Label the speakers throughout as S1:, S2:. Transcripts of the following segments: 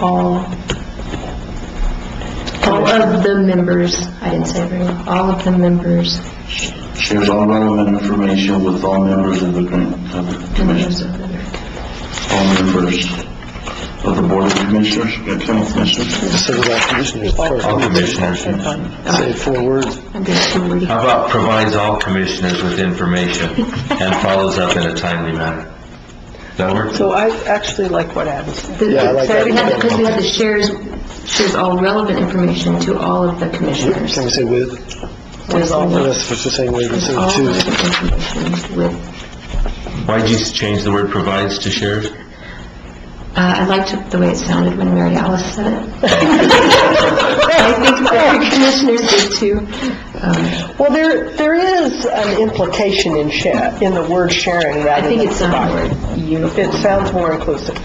S1: all, all of the members, I didn't say everyone, all of the members,
S2: shares all relevant information with all members of the grant, of the
S1: members
S2: commission,
S1: of the,
S2: all members of the board of commissioners, uh, county commissioners,
S3: Instead of all commissioners,
S4: All
S3: sorry,
S4: commissioners. How
S3: say four words.
S1: I'm just reading.
S3: Uh,
S4: about provides all commissioners with information and follows up in a timely manner? That work?
S5: So I actually like what Adam said.
S1: The-
S3: Yeah, I like
S1: Sorry, we
S3: that.
S1: had, because we had the shares, shares all relevant information to all of the commissioners.
S3: Can we say with?
S1: With all the-
S3: That's the same way we
S1: with
S3: say
S1: all
S3: to.
S1: relevant information with,
S4: Why'd you change the word provides to shares?
S1: uh, I liked the way it sounded when Mary Alice said it. I think the commissioners did too. Um,
S5: Well, there, there is an implication in share, in the word sharing
S1: I
S5: rather
S1: think
S5: than
S1: it sounded
S5: providing.
S1: more uniform.
S5: It sounds more inclusive,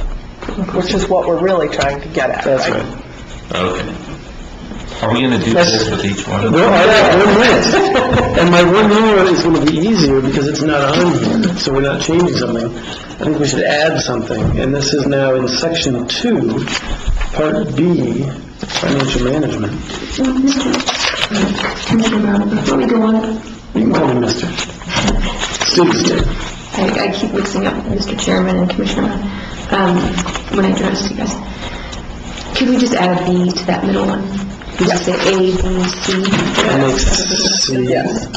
S5: which is what we're really trying to get at,
S3: That's
S5: right?
S3: right.
S4: Okay. Are we gonna do this with each one?
S3: Well, I have one list, and my one minute is gonna be easier because it's not on here, so we're not changing something. I think we should add something, and this is now in section two, part B, financial management.
S1: Commissioner Brown, before we go on,
S3: You can call me mister. Students do.
S1: I, I keep mixing up Mr. Chairman and Commissioner Brown, um, when I address you guys. Could we just add a B to that middle one? We just say A, B, C?
S3: That makes C.
S5: Yes.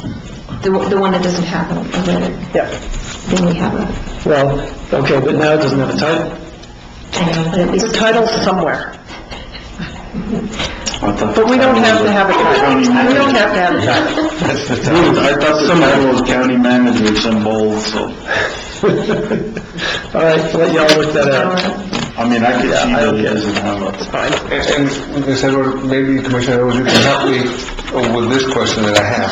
S1: The, one- the one that doesn't have a a letter,
S5: Yeah,
S1: then we have a,
S3: Well, okay, but now it doesn't have a title.
S1: uh, but at least.
S5: the title's somewhere,
S2: I thought...
S5: but we don't have to have a title. We don't have to have a title.
S4: That's the time.
S2: I thought the title was county manager, it's in bold, so,
S3: All right, let y'all work that out.
S1: Or-
S2: I mean, I could see that it doesn't have a...
S6: And, and Ms. Edwards, maybe Commissioner Edwards, you can help me with this question that I have.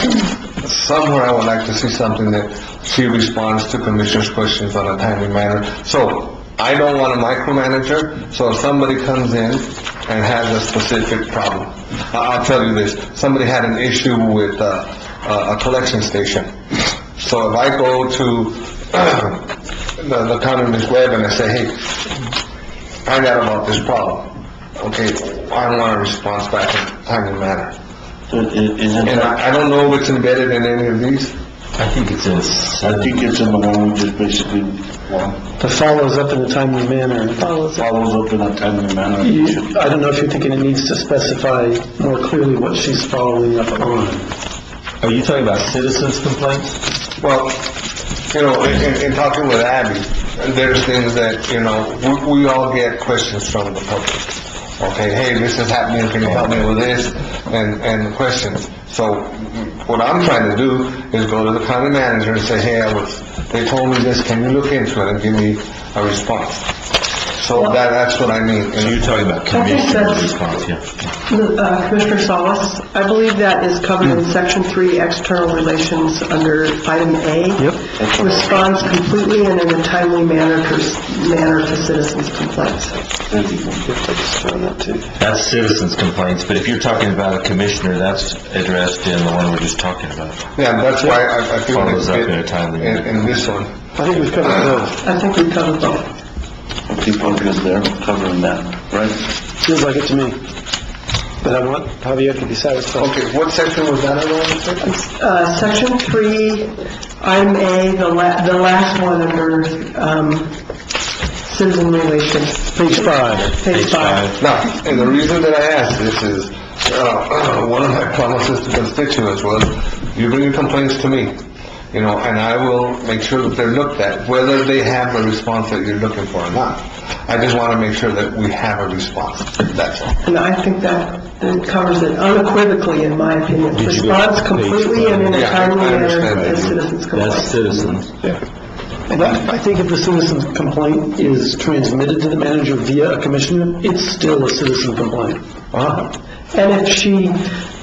S6: Somewhere I would like to see something that she responds to commissioners' questions on a timely manner. So, I don't want a micromanager, so if somebody comes in and has a specific problem, I- I'll tell you this, somebody had an issue with, uh, a a collection station. So if I go to the, the county Ms. Webb and I say, hey, find out about this problem. Okay, I want a response back in a timely manner.
S2: It, it isn't,
S6: And I, I don't know if it's embedded in any of these.
S4: I think it's in
S2: I
S4: seven.
S2: think it's in the one we just basically, well,
S3: The follows up in a timely manner.
S2: follows up in a timely manner.
S3: You- I don't know if you're thinking it needs to specify more clearly what she's following up on.
S4: Are you talking about citizens complaints?
S6: Well, you know, in, in- in talking with Abby, there's things that, you know, we, we all get questions from the public. Okay, hey, this is happening, can you help me with this? And, and questions. So what I'm trying to do is go to the county manager and say, hey, I was, they told me this, can you look into it and give me a response? So that, that's what I mean.
S4: So you're talking about commissioner
S5: that's-
S4: response, yeah.
S5: Uh, Commissioner Solis, I believe that is covered in Section 3, External Relations, under item A. Yep. Responds completely and in a timely manner to, manner to citizens' complaints.
S4: That's citizens complaints, but if you're talking about a commissioner, that's addressed in the one we're just talking about.
S6: Yeah, that's why I, I feel it's
S4: Follows up in
S6: in,
S4: a timely manner.
S6: in this one.
S3: I think we've covered both.
S5: I think we covered both.
S2: People are just there covering that, right?
S3: Feels like it to me. But I want Javier to be satisfied.
S6: Okay, what section was that on?
S5: Uh, Section 3, item A, the la, the last one under um, Citizen Relations,
S3: Page five.
S5: page 5.
S6: Uh, Now, and the reason that I asked this is, uh, one of my promises to constituents was, you bring your complaints to me, you know, and I will make sure that they're looked at, whether they have the response that you're looking for or not. I just want to make sure that we have a response, that's all.
S5: And I think that that covers it unequivocally, in my opinion. Responds completely and in a
S6: Yeah, I
S5: timely manner
S6: understand
S5: to
S6: that.
S5: citizens' complaints.
S4: citizens.
S3: Oh, And I I think if the citizen's complaint is transmitted to the manager via a commissioner, it's still a citizen complaint.
S5: And if she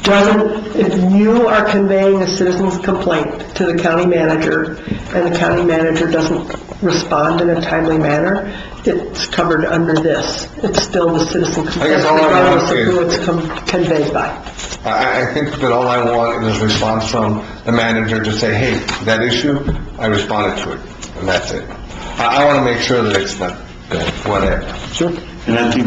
S5: doesn't, if you are conveying a citizen's complaint to the county manager, and the county manager doesn't respond in a timely manner, it's covered under this. It's still the citizen complaint,
S6: guess all I want
S5: regardless of
S6: is-
S5: who it's com- conveyed by.
S6: I, I- I think that all I want is a response from the manager to say, hey, that issue, I responded to it, and that's it. I, I want to make sure that it's not, whatever.
S3: Sure.
S2: And I think